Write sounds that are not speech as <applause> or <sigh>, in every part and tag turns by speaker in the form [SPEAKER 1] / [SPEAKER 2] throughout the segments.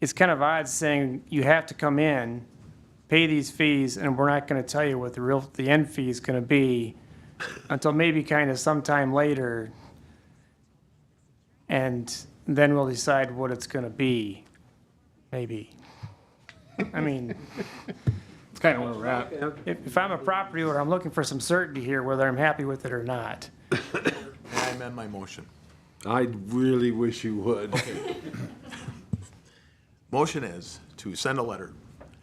[SPEAKER 1] it's kind of odd saying you have to come in, pay these fees, and we're not going to tell you what the real, the end fee is going to be until maybe kind of sometime later. And then we'll decide what it's going to be, maybe. I mean,
[SPEAKER 2] It's kind of where we're at.
[SPEAKER 1] if, if I'm a property owner, I'm looking for some certainty here, whether I'm happy with it or not.
[SPEAKER 3] I amend my motion.
[SPEAKER 4] I really wish you would.
[SPEAKER 3] Motion is to send a letter,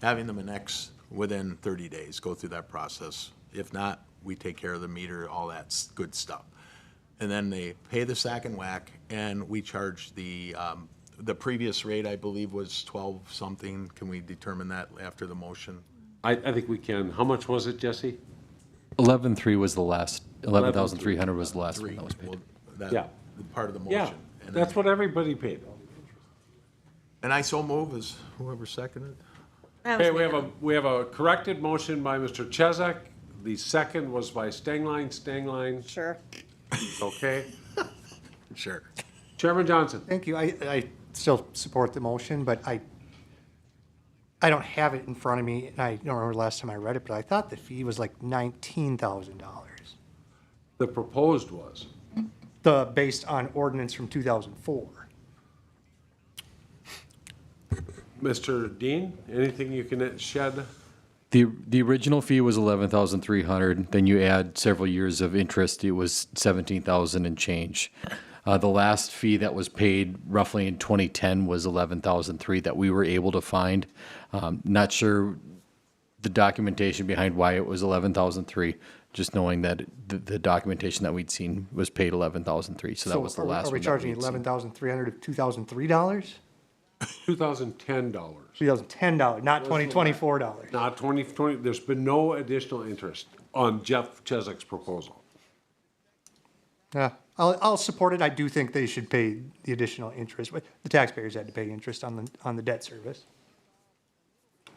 [SPEAKER 3] having them annex within 30 days, go through that process. If not, we take care of the meter, all that s- good stuff. And then they pay the sack and whack, and we charge the, um, the previous rate, I believe, was 12 something. Can we determine that after the motion?
[SPEAKER 4] I, I think we can. How much was it, Jesse?
[SPEAKER 5] Eleven three was the last, eleven thousand three hundred was the last
[SPEAKER 3] Three.
[SPEAKER 5] one that was paid.
[SPEAKER 3] Well, that-
[SPEAKER 4] Yeah.
[SPEAKER 3] the Part of the motion.
[SPEAKER 4] Yeah,
[SPEAKER 3] And
[SPEAKER 4] that's
[SPEAKER 3] then-
[SPEAKER 4] what everybody paid.
[SPEAKER 3] And I so move, is whoever seconded?
[SPEAKER 4] Okay, we have a, we have a corrected motion by Mr. Chesak. The second was by Stengline, Stengline,
[SPEAKER 6] Sure.
[SPEAKER 4] okay?
[SPEAKER 3] Sure.
[SPEAKER 4] Chairman Johnson,
[SPEAKER 7] Thank you. I, I still support the motion, but I, I don't have it in front of me, and I don't remember the last time I read it, but I thought the fee was like nineteen thousand dollars.
[SPEAKER 4] the proposed was.
[SPEAKER 7] The, based on ordinance from two thousand four.
[SPEAKER 4] Mr. Dean, anything you can shed?
[SPEAKER 5] The, the original fee was eleven thousand three hundred, then you add several years of interest, it was seventeen thousand and change. Uh, the last fee that was paid roughly in twenty ten was eleven thousand three that we were able to find. Um, not sure the documentation behind why it was eleven thousand three, just knowing that the, the documentation that we'd seen was paid eleven thousand three, so that was the last one.
[SPEAKER 7] Are we
[SPEAKER 5] that
[SPEAKER 7] charging
[SPEAKER 5] had seen.
[SPEAKER 7] eleven thousand three hundred of two thousand three dollars?
[SPEAKER 4] $2,010,
[SPEAKER 7] Two thousand ten dollars, not twenty twenty-four dollars.
[SPEAKER 4] not 20, 20, there's been no additional interest on Jeff Chesak's proposal.
[SPEAKER 7] Yeah, I'll, I'll support it. I do think they should pay the additional interest, but the taxpayers had to pay interest on the, on the debt service.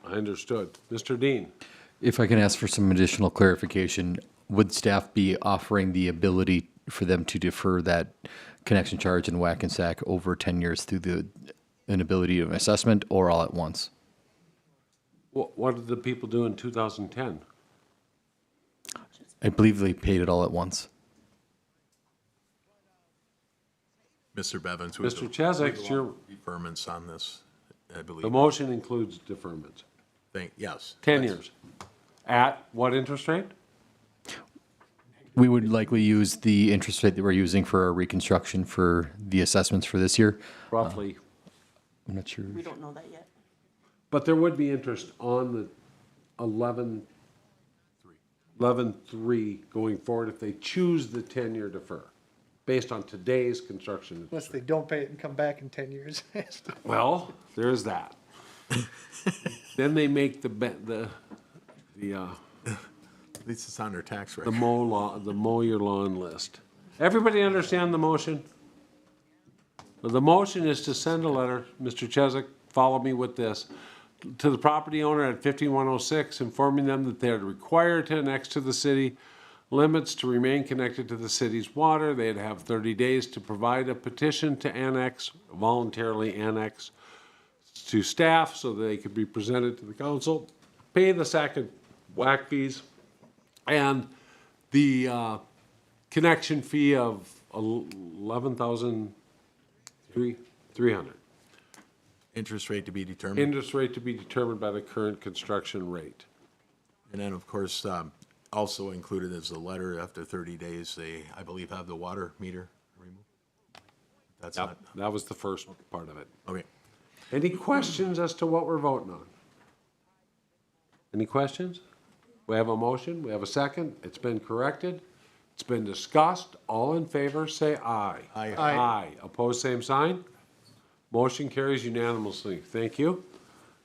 [SPEAKER 4] I understood. Mr. Dean?
[SPEAKER 5] If I can ask for some additional clarification, would staff be offering the ability for them to defer that connection charge and whack and sack over 10 years through the inability of assessment or all at once?
[SPEAKER 4] What, what did the people do in 2010?
[SPEAKER 5] I believe they paid it all at once.
[SPEAKER 3] Mr. Bevins. we-
[SPEAKER 4] Mr. Chesak, it's your,
[SPEAKER 3] Deferments on this, I
[SPEAKER 4] the
[SPEAKER 3] believe.
[SPEAKER 4] motion includes deferments,
[SPEAKER 3] Thank, yes.
[SPEAKER 4] 10
[SPEAKER 3] That's-
[SPEAKER 4] years. At what interest rate?
[SPEAKER 5] We would likely use the interest rate that we're using for our reconstruction for the assessments for this year.
[SPEAKER 4] Roughly.
[SPEAKER 5] I'm not sure.
[SPEAKER 6] We don't know that yet.
[SPEAKER 4] But there would be interest on the 11, 11.3 going forward if they choose the 10-year defer, based on today's construction.
[SPEAKER 7] Unless they don't pay it and come back in ten years. <laughs>
[SPEAKER 4] Well, there is that. Then they make the, be- the, the, uh,
[SPEAKER 3] At least it's on their tax
[SPEAKER 4] the
[SPEAKER 3] record.
[SPEAKER 4] mow law, the mow your lawn list. Everybody understand the motion? Well, The motion is to send a letter, Mr. Chesak, follow me with this, to the property owner at fifty-one oh six, informing them that they are required to annex to the city limits to remain connected to the city's water. They'd have thirty days to provide a petition to annex, voluntarily annex to staff so they could be presented to the council, pay the sack and whack fees, and the uh, connection fee of eleven thousand three three hundred.
[SPEAKER 3] Interest rate to be determined.
[SPEAKER 4] Interest rate to be determined by the current construction rate.
[SPEAKER 3] And then, of course, um, also included is the letter, after 30 days, they, I believe, have the water meter removed. That's not,
[SPEAKER 4] That was the first part of it.
[SPEAKER 3] okay.
[SPEAKER 4] Any questions as to what we're voting on? Any questions? We have a motion, we have a second, it's been corrected, it's been discussed, all in favor, say aye.
[SPEAKER 3] Aye.
[SPEAKER 7] Aye.
[SPEAKER 4] Aye, opposed, same sign. Motion carries unanimously, thank you.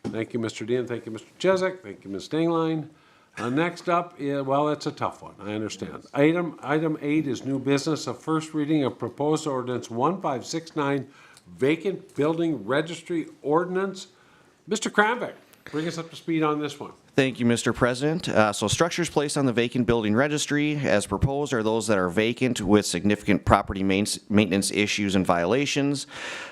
[SPEAKER 4] Thank you, Mr. Dean, thank you, Mr. Chesak, thank you, Ms. Dingline. Uh, next up, yeah, well, it's a tough one, I understand. Item, item eight is new business, a first reading of proposed ordinance one five six nine, vacant building registry ordinance. Mr. Kramvik, bring us up to speed on this one.
[SPEAKER 8] Thank you, Mr. President. Uh, So structures placed on the vacant building registry, as proposed, are those that are vacant with significant property main- maintenance issues and violations.